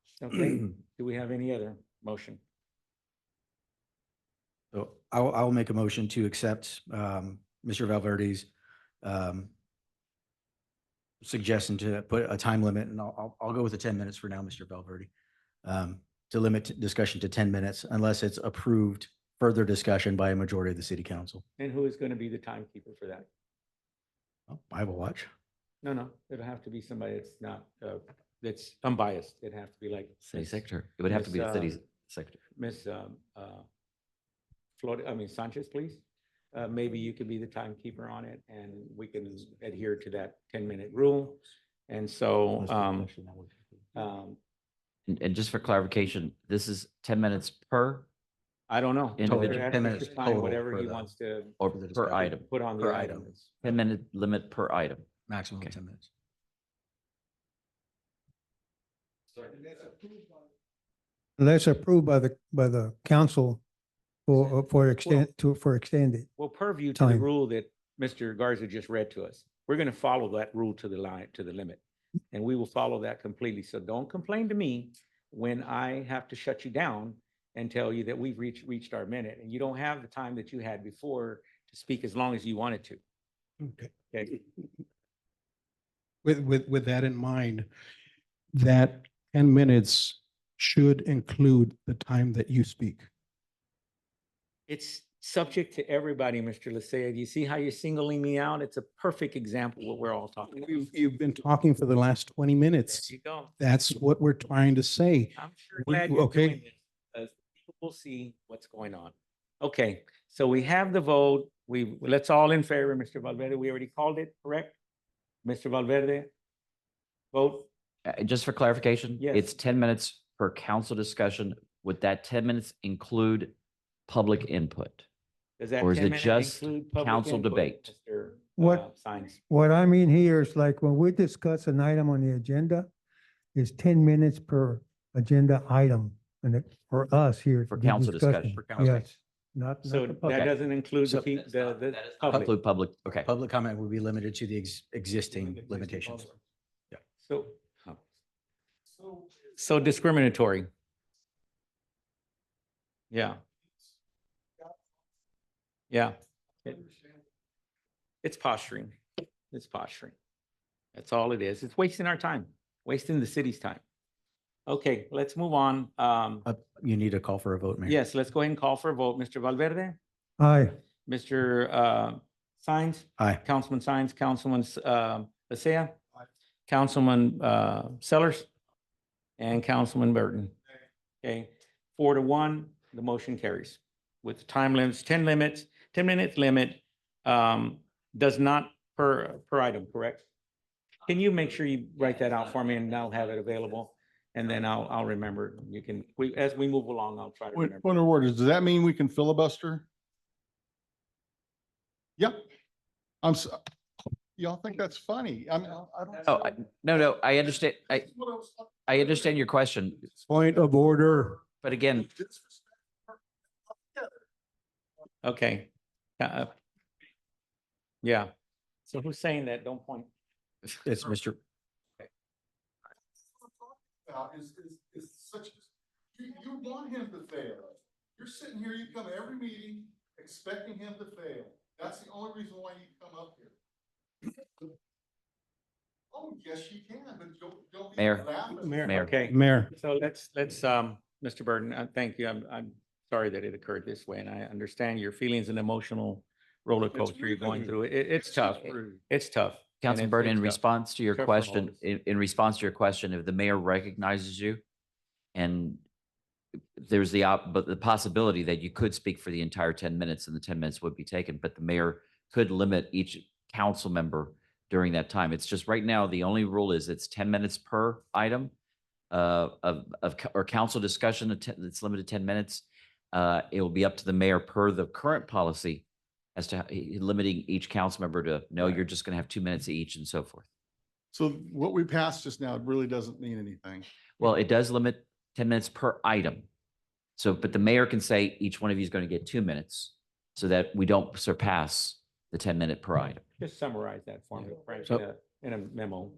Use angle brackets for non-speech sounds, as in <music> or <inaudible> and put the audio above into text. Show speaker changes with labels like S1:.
S1: <clears throat>
S2: Okay, do we have any other motion?
S1: So I'll, I'll make a motion to accept um, Mr. Valverde's um, suggestion to put a time limit, and I'll, I'll- I'll go with the 10 minutes for now, Mr. Valverde, um, to limit discussion to 10 minutes unless it's approved further discussion by a majority of the city council.
S2: And who is going to be the timekeeper for that?
S1: Oh, I will watch.
S2: No, no, it'll have to be somebody that's not, uh, that's unbiased. It'd have to be like.
S3: City
S2: Ms.
S3: secretary. It would have to
S2: Miss,
S3: be the
S2: uh,
S3: city secretary.
S2: Ms. um, uh, Flor, I mean Sanchez, please. Uh, Maybe you could be the timekeeper on it and we can adhere to that ten-minute rule. And so, um, um,
S3: And, and just for clarification, this is ten minutes per
S2: I don't know.
S3: Total,
S2: Whatever
S1: 10
S2: happens to
S1: minutes
S2: time,
S1: total
S2: Whatever
S1: for
S2: he
S1: the-
S2: wants to
S3: or
S1: For the
S3: per
S1: discussion.
S3: item,
S2: put on
S1: Per
S2: the
S1: item.
S2: items.
S3: ten minute limit per item.
S1: Maximum
S3: Okay.
S1: of 10 minutes.
S4: Unless approved by the, by the council for, uh, for extend, to, for extended.
S2: Well, purview to the
S4: Time.
S2: rule that Mr. Garza just read to us. We're going to follow that rule to the line, to the limit. And we will follow that completely. So don't complain to me when I have to shut you down and tell you that we've reached, reached our minute and you don't have the time that you had before to speak as long as you wanted to.
S5: Okay.
S2: Okay.
S5: With, with, with that in mind, that ten minutes should include the time that you speak.
S2: It's subject to everybody, Mr. Lysia. Do you see how you're singling me out? It's a perfect example of what we're all talking about.
S5: You've, you've been talking for the last twenty
S2: There
S5: minutes.
S2: you go.
S5: That's what we're trying to say.
S2: I'm sure
S5: We-
S2: glad you're
S5: okay.
S2: doing this. because people will see what's going on. Okay, so we have the vote. We, let's all in favor, Mr. Valverde. We already called it, correct? Mr. Valverde? Vote,
S3: Uh, just for clarification,
S2: Yes.
S3: it's ten minutes per council discussion. Would that ten minutes include public input?
S2: does that
S3: Or is
S2: 10
S3: it
S2: minute
S3: just
S2: include public
S3: council
S2: input,
S3: debate?
S2: Mr.,
S4: What-
S2: uh, Sines,
S4: What I mean here is like when we discuss an item on the agenda, it's ten minutes per agenda item. And it, for us here.
S3: For
S4: the
S3: council discussion. For council.
S4: Yes, not,
S2: So
S4: not the public.
S2: that doesn't include the,
S1: So-
S2: pe- the, the public.
S3: Include public, okay.
S1: Public comment will be limited to the ex- existing limitations.
S2: So. oh. So discriminatory. Yeah. Yeah. It- It's posturing. It's posturing. That's all it is. It's wasting our time, wasting the city's time. Okay, let's move on. Um,
S1: Uh, You need a call for a vote, Mayor.
S2: yes, let's go ahead and call for a vote. Mr. Valverde,
S4: Aye,
S2: Mr. Uh, Sines?
S1: Aye.
S2: Councilman Sines, Councilman uh, Lysia, Councilman uh, Sellers, and Councilman Burton. Okay, four to one, the motion carries with the time limits, 10 limits, 10 minutes limit um, does not per, per item, correct? Can you make sure you write that out for me and I'll have it available? And then I'll, I'll remember. You can, we, as we move along, I'll try to
S6: Point,
S2: remember.
S6: point of order, does that mean we can filibuster? Yep. I'm, s- y'all think that's funny? I'm, I don't.
S3: Oh, I- no, no, I understand. I, I understand your question,
S5: Point of order.
S3: but again,
S2: Okay. Uh, Yeah. So who's saying that? Don't point.
S1: It's Mr.
S6: About is, is, is such, you, you want him to fail. You're sitting here, you come to every meeting expecting him to fail. That's the only reason why you come up here. Oh, yes, you can, but don't, don't. be
S3: Mayor.
S6: laughing.
S5: Mayor.
S3: Mayor.
S2: Okay.
S5: Mayor,
S2: So let's, let's, um, Mr. Burton, uh, thank you. I'm, I'm sorry that it occurred this way and I understand your feelings and emotional roller
S6: It's
S2: coaster you're
S6: rude.
S2: going through. It, it's tough.
S6: rude.
S2: It's tough. and
S3: Councilman
S2: it's-
S3: Burton, in
S2: it's tough.
S3: response to your
S2: Tough for all of
S3: question,
S2: us.
S3: in, in response to your question, if the mayor recognizes you and there's the op, but the possibility that you could speak for the entire ten minutes and the ten minutes would be taken, but the mayor could limit each council member during that time. It's just right now, the only rule is it's ten minutes per item uh, of, of, co- or council discussion, a ten- it's limited ten minutes. Uh, it will be up to the mayor per the current policy as to how- eh, limiting each council member to, no, you're just going to have two minutes each and so forth.
S6: So what we passed just now really doesn't mean anything.
S3: Well, it does limit ten minutes per item. So, but the mayor can say each one of you is going to get two minutes so that we don't surpass the ten minute per item.
S2: Just summarize that for me, Frank, in
S1: So-
S2: a- in a memo.